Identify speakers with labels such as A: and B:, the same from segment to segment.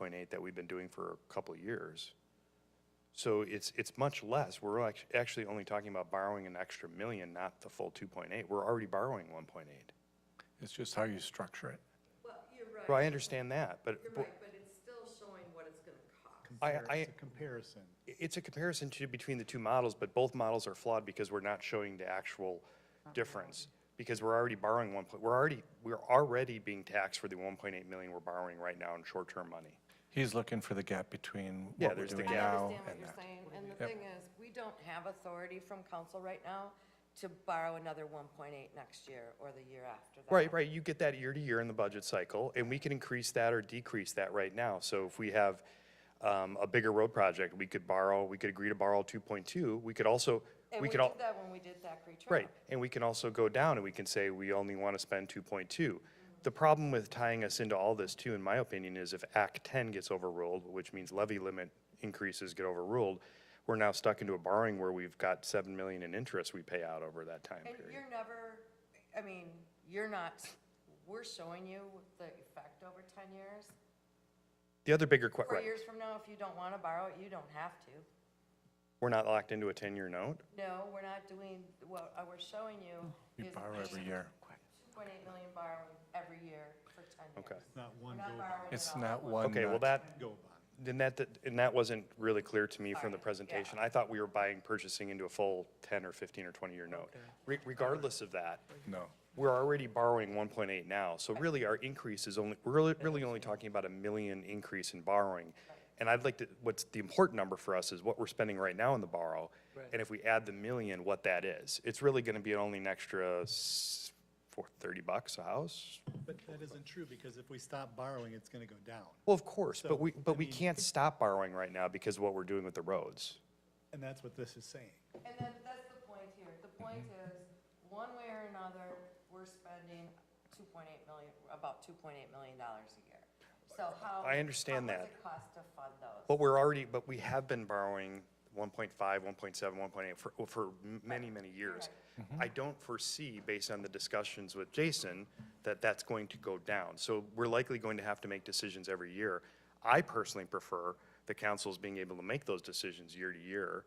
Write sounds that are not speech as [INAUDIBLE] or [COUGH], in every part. A: 1.8 that we've been doing for a couple of years. So it's, it's much less. We're act- actually only talking about borrowing an extra million, not the full 2.8. We're already borrowing 1.8.
B: It's just how you structure it.
C: Well, you're
A: Well, I
C: right,
A: understand that, but
C: you're right, but it's still showing what it's gonna cost.
A: I, I,
D: It's a comparison.
A: it's a comparison to, between the two models, but both models are flawed because we're not showing the actual difference. Because we're already borrowing one, point- we're already, we're already being taxed for the 1.8 million we're borrowing right now in short-term money.
B: He's looking for the gap between
A: Yeah,
B: what we're
A: there's the
B: doing
A: gap.
C: I
B: now
C: understand what
B: and
C: you're
B: that.
C: saying, and the thing is, we don't have authority from council right now to borrow another one point eight next year or the year after that.
A: Right, right, you get that year to year in the budget cycle, and we can increase that or decrease that right now. So if we have um, a bigger road project, we could borrow, we could agree to borrow 2.2, we could also,
C: And
A: we
C: we
A: could
C: did
A: all,
C: that when we did Thackeray Trail.
A: right, and we can also go down and we can say, we only want to spend 2.2. The problem with tying us into all this too, in my opinion, is if Act 10 gets overruled, which means levy limit increases get overruled, we're now stuck into a borrowing where we've got 7 million in interest we pay out over that time
C: And
A: period.
C: you're never, I mean, you're not, we're showing you the effect over ten years.
A: The other bigger, que-
C: Four
A: right,
C: years from now, if you don't wanna borrow it, you don't have to.
A: we're not locked into a 10-year note?
C: No, we're not doing, what I was showing you
B: You
C: is
B: borrow every
C: the
B: year.
C: point eight million borrowing every year for ten years.
A: Okay.
D: It's not one
C: We're not
D: go bond.
C: borrowing it
B: It's
C: all at
B: not
C: once.
B: one.
A: Okay, well,
B: nut.
A: that,
D: Go bond.
A: then that, and that wasn't really clear to me from the
C: Alright, yeah.
A: presentation. I thought we were buying, purchasing into a full 10 or 15 or 20-year note. Re- Regardless of that,
B: No.
A: we're already borrowing 1.8 now, so really our increase is only, we're really- really only talking about a million increase in borrowing. And I'd like to, what's the important number for us is what we're spending right now in the borrow, and if we add the million, what that is. It's really going to be only an extra s- four- 30 bucks a house?
D: But that isn't true, because if we stop borrowing, it's gonna go down.
A: Well, of course,
D: So,
A: but we,
D: I
A: but we
D: mean-
A: can't stop borrowing right now because of what we're doing with the roads.
D: And that's what this is saying.
C: And then, that's the point here, the point
A: Mm-hmm.
C: is, one way or another, we're spending two point eight million, about two point eight million dollars a year. So how?
A: I understand
C: how
A: that.
C: much it cost to fund those?
A: But we're already, but we have been borrowing 1.5, 1.7, 1.8 for, for m- many, many years. I don't foresee, based on the discussions with Jason, that that's going to go down. So we're likely going to have to make decisions every year. I personally prefer the council's being able to make those decisions year to year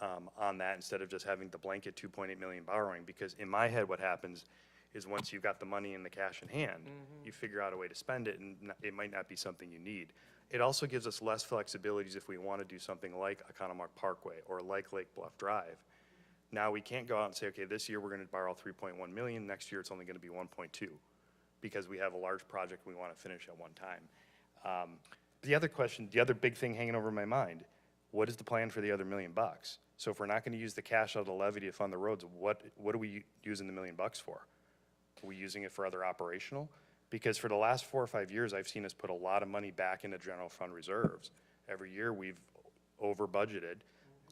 A: um, on that instead of just having the blanket 2.8 million borrowing. Because in my head, what happens is once you've got the money and the cash in hand, you figure out a way to spend it, and n- it might not be something you need. It also gives us less flexibilities if we want to do something like Economock Parkway or like Lake Bluff Drive. Now, we can't go out and say, okay, this year we're going to borrow 3.1 million, next year it's only going to be 1.2, because we have a large project we want to finish at one time. Um, The other question, the other big thing hanging over my mind, what is the plan for the other million bucks? So if we're not going to use the cash out of the levy to fund the roads, what, what are we using the million bucks for? Are we using it for other operational? Because for the last four or five years, I've seen us put a lot of money back into general fund reserves. Every year, we've over budgeted,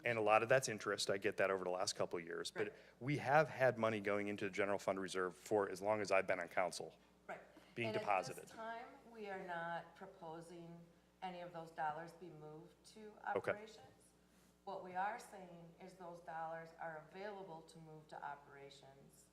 A: and a lot of that's interest, I get that over the last couple of years. But we have had money going into the general fund reserve for as long as I've been on council.
C: Right.
A: being
C: And
A: deposited.
C: at this time, we are not proposing any of those dollars be moved to
A: Okay.
C: operations. What we are saying is those dollars are available to move to operations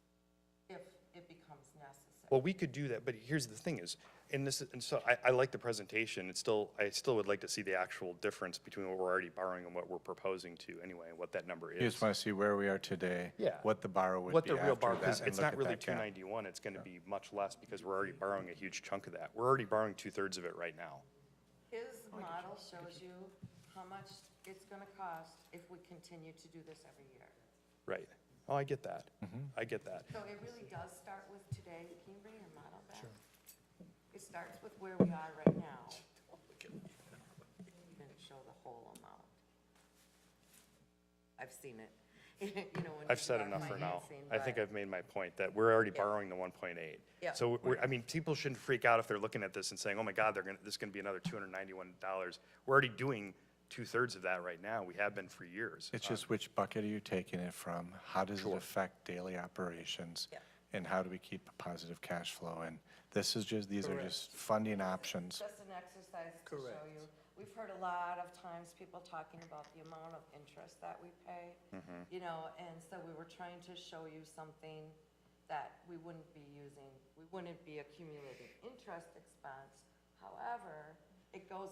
C: if it becomes necessary.
A: Well, we could do that, but here's the thing is, and this, is- and so I, I like the presentation, it's still, I still would like to see the actual difference between what we're already borrowing and what we're proposing to anyway, and what that number is.
B: You just want to see where we are today.
A: Yeah.
B: What the borrow would be
A: what
B: after
A: the
B: that.
A: real bar, because
B: and
A: it's
B: look
A: not
B: at
A: really
B: that
A: two
B: gap.
A: ninety-one, it's gonna be much less because we're already borrowing a huge chunk of that. We're already borrowing two-thirds of it right now.
C: His model shows you how much it's gonna cost if we continue to do this every year.
A: Right. Oh, I get that. I get that.
C: So it really does start with today. Can you bring your model back? Sure. It starts with where we are right now. And show the whole amount. I've seen it. [LAUGHS] You know, when
A: I've
C: you
A: said
C: are
A: enough for now.
C: financing,
A: I think
C: but-
A: I've made my point that we're already borrowing the one point eight.
C: Yeah.
A: So we're, I mean, people shouldn't freak out if they're looking at this and saying, oh my God, they're gonna, this is gonna be another two hundred ninety-one dollars. We're already doing two-thirds of that right now. We have been for years. Uh,
B: It's just which bucket are you taking it from? How does it affect daily operations?
C: Yeah.
B: And how do we keep a positive cash flow? And this is just, these are just funding options.
C: Just an exercise to show you. We've heard a lot of times people talking about the amount of interest that we pay, you know, and so we were trying to show you something that we wouldn't be using, we wouldn't be accumulating interest expense. However, it goes